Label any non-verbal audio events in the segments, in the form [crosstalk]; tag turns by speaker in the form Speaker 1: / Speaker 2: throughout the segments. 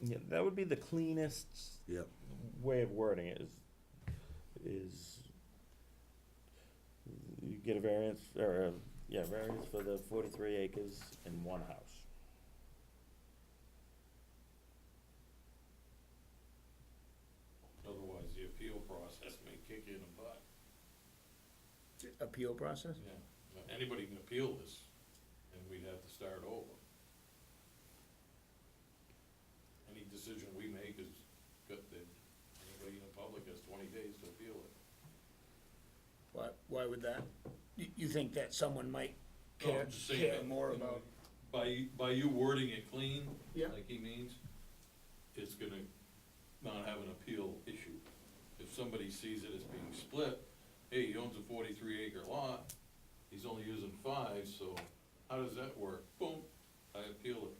Speaker 1: Yeah, that would be the cleanest
Speaker 2: Yep.
Speaker 1: way of wording it is, is you get a variance, or, uh, yeah, variance for the forty-three acres in one house.
Speaker 3: Otherwise, the appeal process may kick you in the butt.
Speaker 4: Appeal process?
Speaker 3: Yeah. Now, Anybody can appeal this, and we'd have to start over. Any decision we make is, got the, anybody in the public has twenty days to appeal it.
Speaker 4: Why, why would that? You, you think that someone might
Speaker 3: No,
Speaker 4: care,
Speaker 3: I'm just saying
Speaker 4: care
Speaker 3: that,
Speaker 4: more
Speaker 3: you know,
Speaker 4: about?
Speaker 3: By, by you wording it clean,
Speaker 4: Yeah.
Speaker 3: like he means, it's gonna not have an appeal issue. If somebody sees it as being split, hey, he owns a forty-three acre lot, he's only using five, so how does that work? Boom, I appeal it.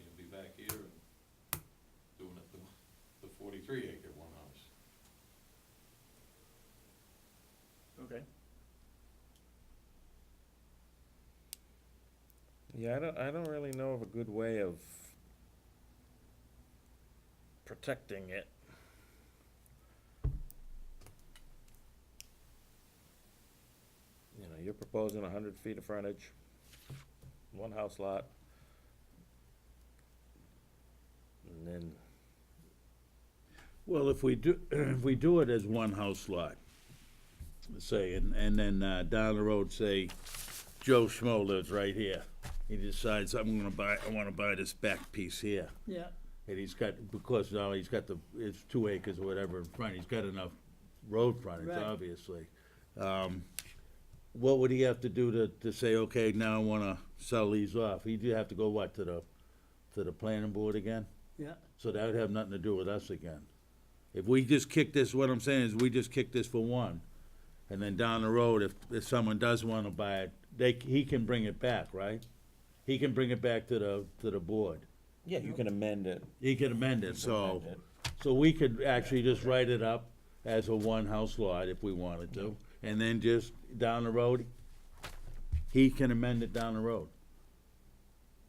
Speaker 3: You'll be back here and doing it the, the forty-three acre one house.
Speaker 4: Okay.
Speaker 1: Yeah, I don't, I don't really know of a good way of protecting it. You know, you're proposing a hundred feet of frontage, one house lot. And then,
Speaker 2: Well, if we do, [clears throat] if we do it as one house lot, say, and, and then uh, down the road, say, Joe Schmo lives right here. He decides, I'm gonna buy, I wanna buy this back piece here.
Speaker 4: Yeah.
Speaker 2: And he's got, because now he's got the, it's two acres or whatever in front, he's got enough road frontage,
Speaker 4: Right.
Speaker 2: obviously. Um, What would he have to do to, to say, okay, now I wanna sell these off? He'd have to go what, to the, to the planning board again?
Speaker 4: Yeah.
Speaker 2: So that would have nothing to do with us again. If we just kick this, what I'm saying is, we just kick this for one, and then down the road, if, if someone does wanna buy it, they, he can bring it back, right? He can bring it back to the, to the board.
Speaker 1: yeah, you can amend it.
Speaker 2: He can amend it,
Speaker 1: amend
Speaker 2: so,
Speaker 1: it.
Speaker 2: so we could actually just write it up as a one-house lot if we wanted to, and then just down the road, he can amend it down the road.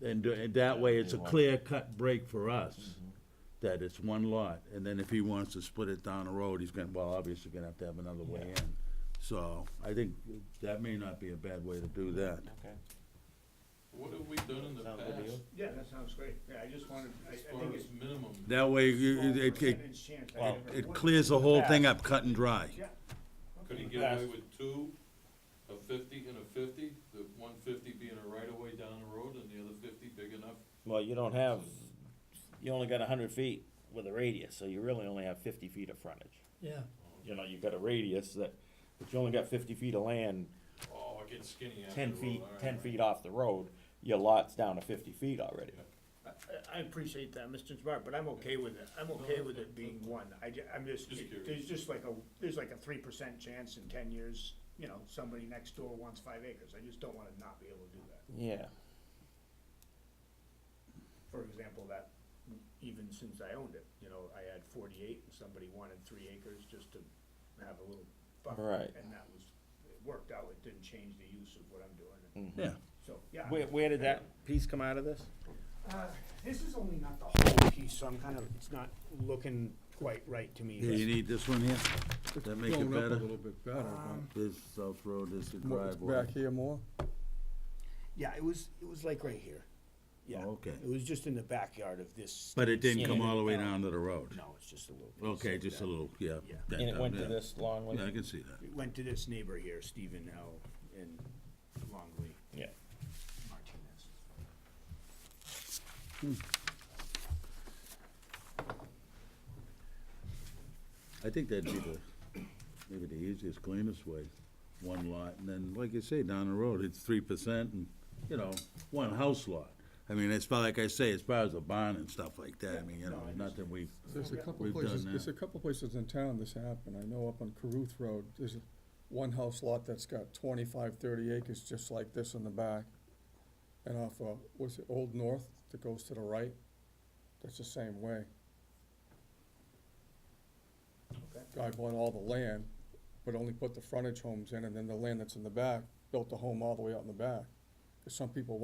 Speaker 2: And do- and that way, it's a clear-cut break for us, that it's one lot, and then if he wants to split it down the road, he's gonna, well, obviously gonna have to have another way in. So, I think that may not be a bad way to do that.
Speaker 1: Okay.
Speaker 3: What have we done in the
Speaker 1: Sound good to
Speaker 3: past?
Speaker 1: you?
Speaker 4: Yeah, that sounds great. Yeah, I just wanted, I, I
Speaker 3: As far
Speaker 4: think it's.
Speaker 3: as minimum,
Speaker 2: That way, you-
Speaker 4: small
Speaker 2: it, it,
Speaker 4: percentage chance. I
Speaker 1: Well,
Speaker 4: never
Speaker 2: it
Speaker 4: would.
Speaker 2: clears the whole thing up cut and dry.
Speaker 4: Yeah.
Speaker 3: could he
Speaker 4: Okay.
Speaker 3: get away with two, a fifty and a fifty? The one fifty being a right of way down the road and the other fifty big enough?
Speaker 1: Well, you don't have, you only got a hundred feet with a radius, so you really only have fifty feet of frontage.
Speaker 5: Yeah,
Speaker 1: You know, you've got a radius that, but you only got fifty feet of land,
Speaker 3: Oh, it gets skinny after.
Speaker 1: ten
Speaker 3: a
Speaker 1: feet,
Speaker 3: while.
Speaker 1: ten feet off the road, your lot's down to fifty feet already.
Speaker 3: Yeah.
Speaker 4: I, I- I appreciate that, Mr. Smart, but I'm okay with it. I'm okay with it being one. I, ju- I'm just,
Speaker 3: Just curious.
Speaker 4: there's just like a, there's like a three percent chance in ten years, you know, somebody next door wants five acres. I just don't wanna not be able to do that.
Speaker 1: Yeah,
Speaker 4: for example, that even since I owned it, you know, I had forty-eight and somebody wanted three acres just to have a little buffer.
Speaker 1: Right.
Speaker 4: And that was, it worked out, it didn't change the use of what I'm doing,
Speaker 1: Mhm.
Speaker 2: Yeah.
Speaker 4: so, yeah.
Speaker 1: Where, where did that piece come out of this?
Speaker 4: Uh, This is only not the whole piece, so I'm kind of, it's not looking quite right to
Speaker 2: Here, you
Speaker 4: me.
Speaker 2: need this one here? Does that make it
Speaker 5: Blown up a
Speaker 2: better?
Speaker 5: little bit better,
Speaker 1: Um,
Speaker 2: This South Road, this is
Speaker 5: but What, it's back
Speaker 2: driveway.
Speaker 5: here more?
Speaker 4: Yeah, it was, it was like right here. Yeah.
Speaker 2: Oh, okay.
Speaker 4: It was just in the backyard of this.
Speaker 2: But it didn't come
Speaker 1: Yeah.
Speaker 2: all the way down to the road?
Speaker 4: No, it's just a little. piece
Speaker 2: Okay,
Speaker 4: like
Speaker 2: just a
Speaker 4: that.
Speaker 2: little, yeah.
Speaker 4: Yeah.
Speaker 2: that
Speaker 1: And it went to
Speaker 2: down, yeah.
Speaker 1: this long
Speaker 2: Yeah, I
Speaker 1: one?
Speaker 2: can see that.
Speaker 4: It went to this neighbor here, Stephen L. and Longley
Speaker 1: Yeah.
Speaker 4: Martinez.
Speaker 2: I think that'd be the, maybe the easiest, cleanest way, one lot, and then, like you say, down the road, it's three percent, and, you know, one house lot. I mean, as far, like I say, as far as the bond and stuff like that, I mean, you know, nothing we,
Speaker 5: There's a couple
Speaker 2: We've done
Speaker 5: places, there's
Speaker 2: that.
Speaker 5: a couple places in town this happened. I know up on Caruth Road, there's a one house lot that's got 25, 30 acres just like this in the back. And off, uh, what's it, Old North that goes to the right? That's the same way.
Speaker 4: Okay.
Speaker 5: Guy bought all the land, but only put the frontage homes in, and then the land that's in the back, built the home all the way out in the back. Because some people